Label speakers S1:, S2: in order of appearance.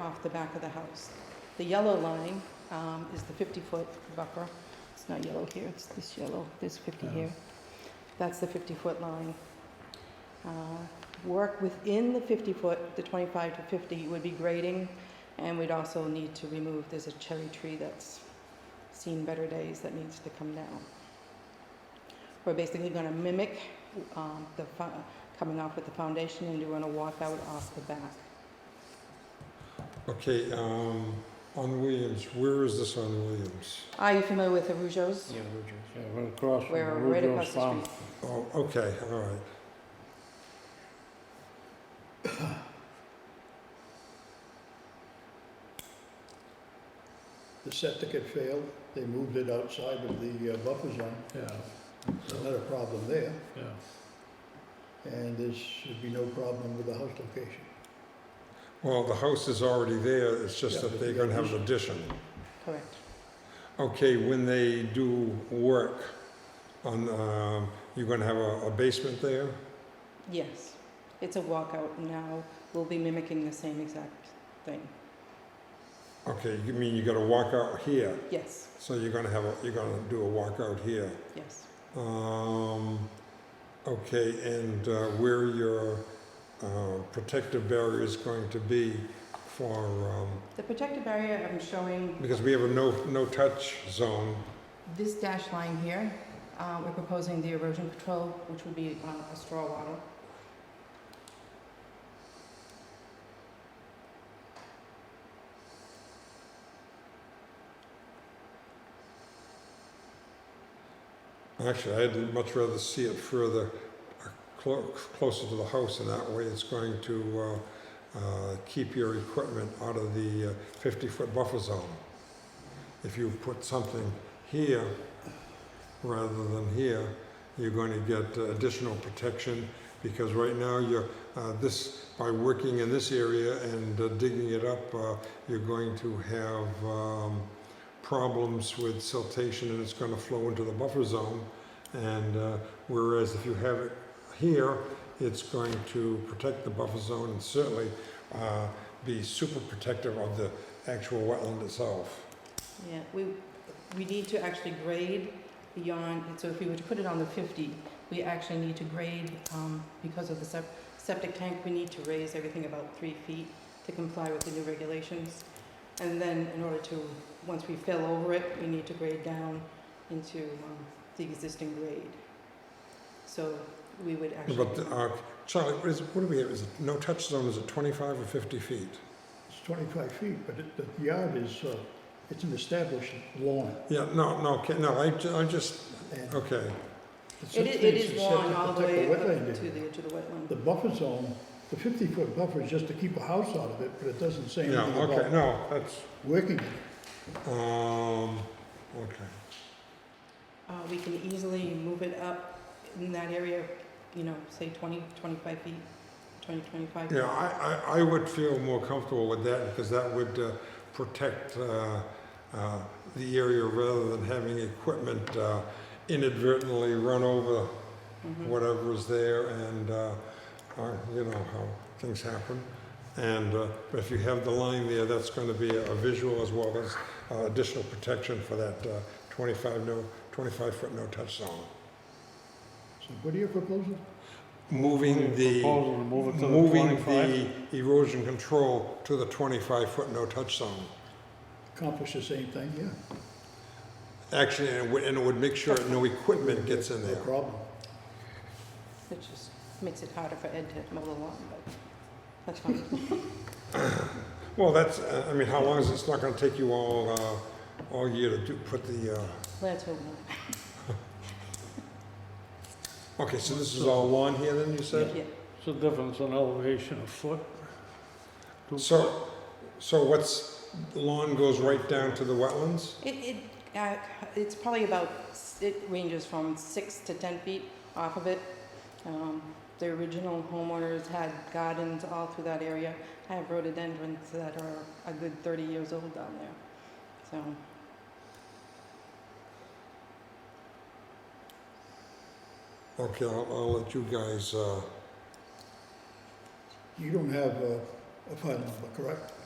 S1: off the back of the house. The yellow line um, is the 50-foot buffer. It's not yellow here, it's this yellow, there's 50
S2: Oh.
S1: here. That's the 50-foot line. Uh, Work within the 50-foot, the 25 to 50 would be grading, and we'd also need to remove, there's a cherry tree that's seen better days that needs to come down. We're basically going to mimic um, the, fo- coming off with the foundation and doing a walkout off the back.
S2: Okay, um, on Williams, where is this on Williams?
S1: Are you familiar with the Rougeos?
S3: Yeah,
S4: Yeah, right across from
S1: We're right
S4: Rudolph's
S1: across the
S4: farm.
S1: street.
S2: Oh, okay, all right.
S3: The septic had failed, they moved it outside of the uh, buffer zone,
S4: Yeah,
S3: so not a problem there,
S4: yeah.
S3: and there should be no problem with the house location.
S2: Well, the house is already there, it's just
S3: Yeah,
S2: that
S3: but
S2: they're
S3: you got
S2: gonna have an addition.
S1: Correct.
S2: Okay, when they do work on, um, you're gonna have a a basement there?
S1: Yes. It's a walkout now. We'll be mimicking the same exact thing.
S2: Okay, you mean you gotta walk out here,
S1: Yes,
S2: so you're gonna have, a you're gonna do a walkout here.
S1: yes.
S2: Um, okay, and uh, where your uh, protective barrier is going to be for, um,
S1: The protective barrier I'm showing,
S2: because we have a no, no-touch zone.
S1: this dash line here, uh, we're proposing the erosion control, which would be uh, a straw wattle.
S2: Actually, I'd much rather see it further, uh, clo- closer to the house, and that way it's going to uh, uh, keep your equipment out of the uh, 50-foot buffer zone. If you put something here rather than here, you're going to get uh, additional protection, because right now you're, uh, this, by working in this area and uh, digging it up, uh, you're going to have um, problems with siltation and it's going to flow into the buffer zone. And uh, whereas if you have it here, it's going to protect the buffer zone and certainly uh, be super protective of the actual wetland itself.
S1: Yeah, we, we need to actually grade beyond, so if we were to put it on the 50, we actually need to grade, um, because of the sep- septic tank, we need to raise everything about three feet to comply with the new regulations. And then in order to, once we fill over it, we need to grade down into um, the existing grade. So we would actually,
S2: But uh, Charlie, what is, what do we have? Is it no touch zone? Is it 25 or 50 feet?
S3: It's twenty-five feet, but it- the yard is, uh, it's an established lawn.
S2: Yeah, no, no, okay, no, I, ju- I just,
S3: and
S2: okay.
S3: the
S1: it
S3: septic
S1: i- it is
S3: set
S1: lawn
S3: to
S1: all the
S3: protect
S1: way up
S3: wetland
S1: to
S3: area.
S1: the, to the wetland.
S3: The buffer zone, the fifty-foot buffer is just to keep a house out of it, but it doesn't say
S2: Yeah,
S3: anything
S2: okay,
S3: about
S2: no, that's,
S3: working it.
S2: um, okay.
S1: Uh, we can easily move it up in that area, you know, say 20, 25 feet, 20, 25 feet.
S2: Yeah, I, I, I would feel more comfortable with that because that would uh, protect uh, uh, the area rather than having equipment uh, inadvertently run over
S1: Mhm.
S2: whatever is there and, uh, uh, you know, how things happen. And uh, but if you have the line there, that's going to be a visual as well as uh, additional protection for that uh, 25 no, 25-foot no-touch zone.
S3: So what are your proposals?
S2: Moving the
S4: Proposal to move it to the
S2: moving
S4: twenty-five.
S2: the erosion control to the 25-foot no-touch zone.
S3: Accomplish the same thing, yeah.
S2: Actually, and it would- and it would make sure no equipment gets in
S3: No
S2: there.
S3: problem.
S1: It just makes it harder for Ed to mow the lawn, but that's fine.
S2: Well, that's, uh, I mean, how long is, it? it's not gonna take you all, uh, all year to do, put the, uh,
S1: Let's hope not.
S2: okay, so this is all lawn here then, you said?
S1: Yeah.
S4: It's a difference in elevation of foot. Two
S2: So, so what's, the lawn goes right down to the wetlands?
S1: It, it, uh, it's probably about, s- it ranges from six to 10 feet off of it. Um, The original homeowners had gardens all through that area. I have rhododendrons that are a good 30 years old down there, so.
S2: Okay, I'll, I'll let you guys, uh,
S3: You don't have a, a file number, correct?